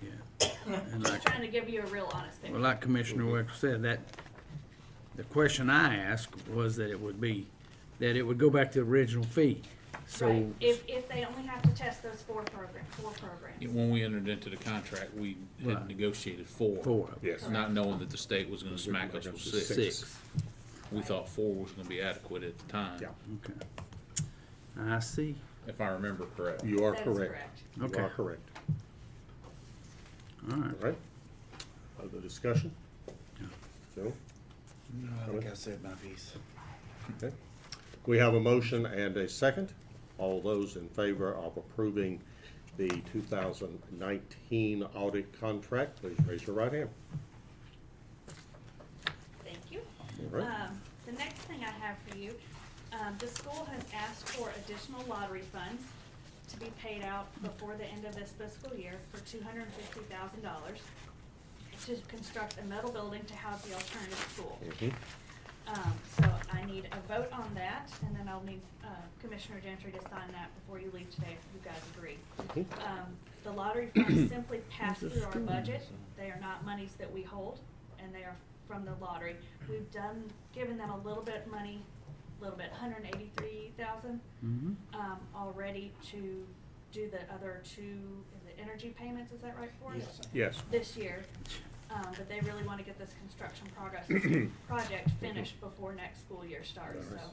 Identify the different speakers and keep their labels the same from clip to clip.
Speaker 1: yeah. And like,
Speaker 2: Trying to give you a real honest
Speaker 1: well,
Speaker 2: picture.
Speaker 1: like Commissioner Wexler said, that, the question I asked was that it would be, that it would go back to the original fee.
Speaker 2: Right,
Speaker 1: So,
Speaker 2: if, if they only have to test those four program, four programs.
Speaker 3: When we entered into the contract, we
Speaker 1: Right.
Speaker 3: had negotiated four.
Speaker 1: four of them,
Speaker 4: Yes.
Speaker 3: Not knowing that the state was gonna smack us with six.
Speaker 1: six,
Speaker 3: We thought four was gonna be adequate at the time.
Speaker 4: Yeah.
Speaker 1: okay. I see,
Speaker 3: If I remember correct.
Speaker 4: You are
Speaker 2: That is
Speaker 4: correct. You
Speaker 1: Okay.
Speaker 4: are correct.
Speaker 1: all right.
Speaker 4: All right. Other discussion? No?
Speaker 5: No, I think I said my piece.
Speaker 4: Okay. We have a motion and a second. All those in favor of approving the 2019 audit contract, please raise your right hand.
Speaker 2: Thank you.
Speaker 4: All right.
Speaker 2: Um, the next thing I have for you, um, the school has asked for additional lottery funds to be paid out before the end of this fiscal year for two hundred and fifty thousand dollars to construct a metal building to house the alternative school.
Speaker 4: Mhm.
Speaker 2: Um, so I need a vote on that, and then I'll need, uh, Commissioner Gentry to sign that before you leave today, if you guys agree.
Speaker 4: Mhm.
Speaker 2: Um, the lottery funds simply pass through our budget, they are not monies that we hold, and they are from the lottery. We've done, given them a little bit money, a little bit, hundred and eighty-three thousand,
Speaker 1: Mhm.
Speaker 2: um, already to do the other two, is it energy payments, is that right for us?
Speaker 5: Yes.
Speaker 4: Yes.
Speaker 2: this year, um, but they really wanna get this construction progress, project finished before next school year starts, so.
Speaker 4: Nice.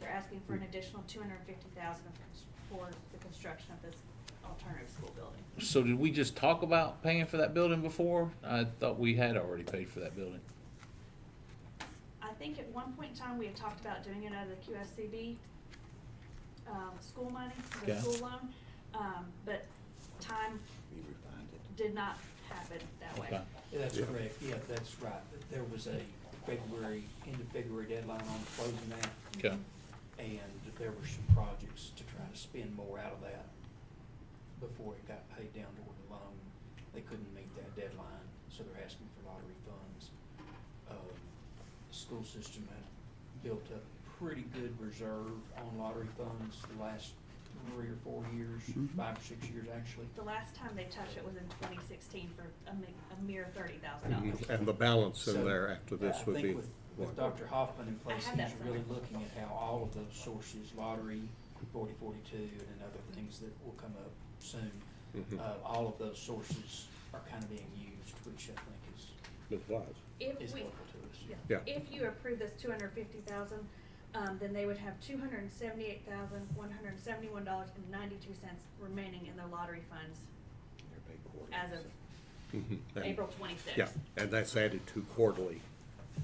Speaker 2: They're asking for an additional two hundred and fifty thousand for the construction of this alternative school building.
Speaker 3: So did we just talk about paying for that building before? I thought we had already paid for that building.
Speaker 2: I think at one point in time, we had talked about doing it out of the QSCB, um, school money, the
Speaker 3: Okay.
Speaker 2: school loan, um, but time
Speaker 5: We refined it.
Speaker 2: did not happen that way.
Speaker 3: Okay.
Speaker 6: That's correct, yeah, that's right. There was a February, end of February deadline on closing that,
Speaker 3: Okay.
Speaker 6: and there were some projects to try to spend more out of that before it got paid down toward the loan. They couldn't meet that deadline, so they're asking for lottery funds. Um, The school system had built up a pretty good reserve on lottery funds the last three or four years,
Speaker 1: Mhm.
Speaker 6: five or six years actually.
Speaker 2: The last time they touched it was in twenty sixteen for a mi- a mere thirty thousand
Speaker 5: Mm-hmm.
Speaker 2: dollars.
Speaker 4: Mhm. And the balance
Speaker 6: So,
Speaker 4: in there after
Speaker 6: I
Speaker 4: this would
Speaker 6: think
Speaker 4: be.
Speaker 6: with- With Dr. Hoffman in place,
Speaker 2: I have
Speaker 6: he's
Speaker 2: that
Speaker 6: really
Speaker 2: somewhere.
Speaker 6: looking at how all of those sources, lottery, forty forty-two, and then other things that will come up soon.
Speaker 4: Mhm.
Speaker 6: Uh, all of those sources are kind of being used, which I think is,
Speaker 4: Ms. Wise.
Speaker 2: If
Speaker 6: is
Speaker 2: we,
Speaker 6: helpful to us.
Speaker 4: Yeah.
Speaker 2: If you approve this two hundred fifty thousand, um, then they would have two hundred and seventy-eight thousand, one hundred and seventy-one dollars and ninety-two cents remaining in their lottery funds
Speaker 5: They're paid quarterly,
Speaker 2: as
Speaker 5: so-
Speaker 2: of
Speaker 4: Mhm.
Speaker 6: Mm-hmm.
Speaker 4: And-
Speaker 2: April twenty-sixth.
Speaker 4: Yeah, and that's added to quarterly.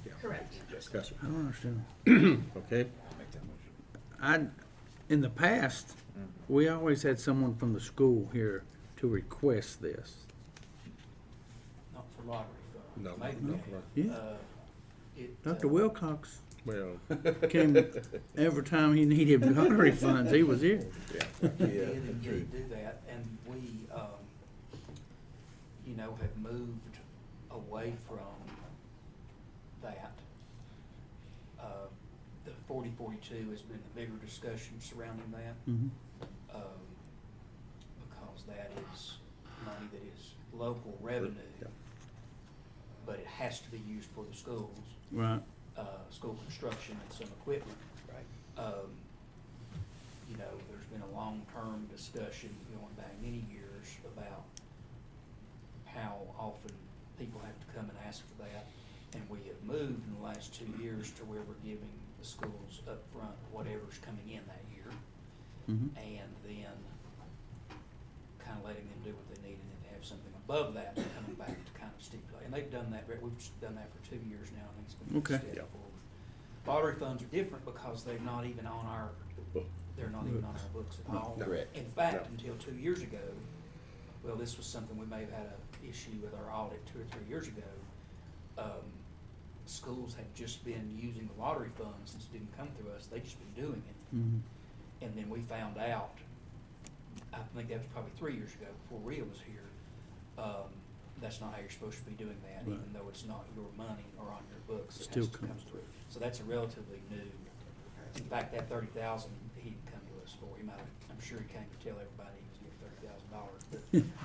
Speaker 4: Yeah.
Speaker 2: Correct.
Speaker 4: Yes, sir.
Speaker 1: I don't understand.
Speaker 4: Okay,
Speaker 5: I'll make that motion.
Speaker 1: I, in the past,
Speaker 5: Mm-hmm.
Speaker 1: we always had someone from the school here to request this.
Speaker 6: Not for lottery funds.
Speaker 4: No,
Speaker 6: Maybe
Speaker 4: not
Speaker 6: they
Speaker 4: for-
Speaker 1: Yeah.
Speaker 6: have. Uh, it,
Speaker 1: Dr.
Speaker 6: uh,
Speaker 1: Wilcox
Speaker 4: well,
Speaker 1: came every time he needed lottery funds, he was here.
Speaker 5: Yeah.
Speaker 6: They
Speaker 5: Yeah,
Speaker 6: did indeed
Speaker 5: true.
Speaker 6: do that, and we, um, you know, have moved away from that. Uh, the forty forty-two has been the bigger discussion surrounding
Speaker 5: Mm.
Speaker 6: that,
Speaker 1: Mhm.
Speaker 6: um, because that is money that is local revenue,
Speaker 4: Yeah.
Speaker 6: but it has to be used for the schools
Speaker 1: Right,
Speaker 6: uh, school construction and some equipment. Right. Um, you know, there's been a long-term discussion going back many years about how often people have to come and ask for that. And we have moved in the last two years to where we're giving the schools upfront whatever's coming in that year.
Speaker 1: mhm.
Speaker 6: And then kind of letting them do what they need and then have something above that and coming back to kind of stipulate. And they've done that, but we've just done that for two years now and it's been a
Speaker 1: Okay.
Speaker 6: good step forward. Lottery funds are different because they're not even on our, they're not even on our books at all.
Speaker 4: No.
Speaker 5: Correct.
Speaker 6: In
Speaker 4: No.
Speaker 6: fact, until two years ago, well, this was something we may have had a issue with our audit two or three years ago. Um, schools had just been using the lottery funds since it didn't come through us. They'd just been doing it.
Speaker 1: Mhm.
Speaker 6: And then we found out, I think that was probably three years ago, before Rhea was here, um, that's not how you're supposed to be doing that, even
Speaker 1: Right.
Speaker 6: though it's not your money or on your books. It
Speaker 1: Still
Speaker 6: has to come
Speaker 1: comes
Speaker 6: through. So that's a relatively new, in fact, that thirty thousand, he didn't come to us for, he might, have- I'm sure he came to tell everybody he was getting thirty thousand dollars, but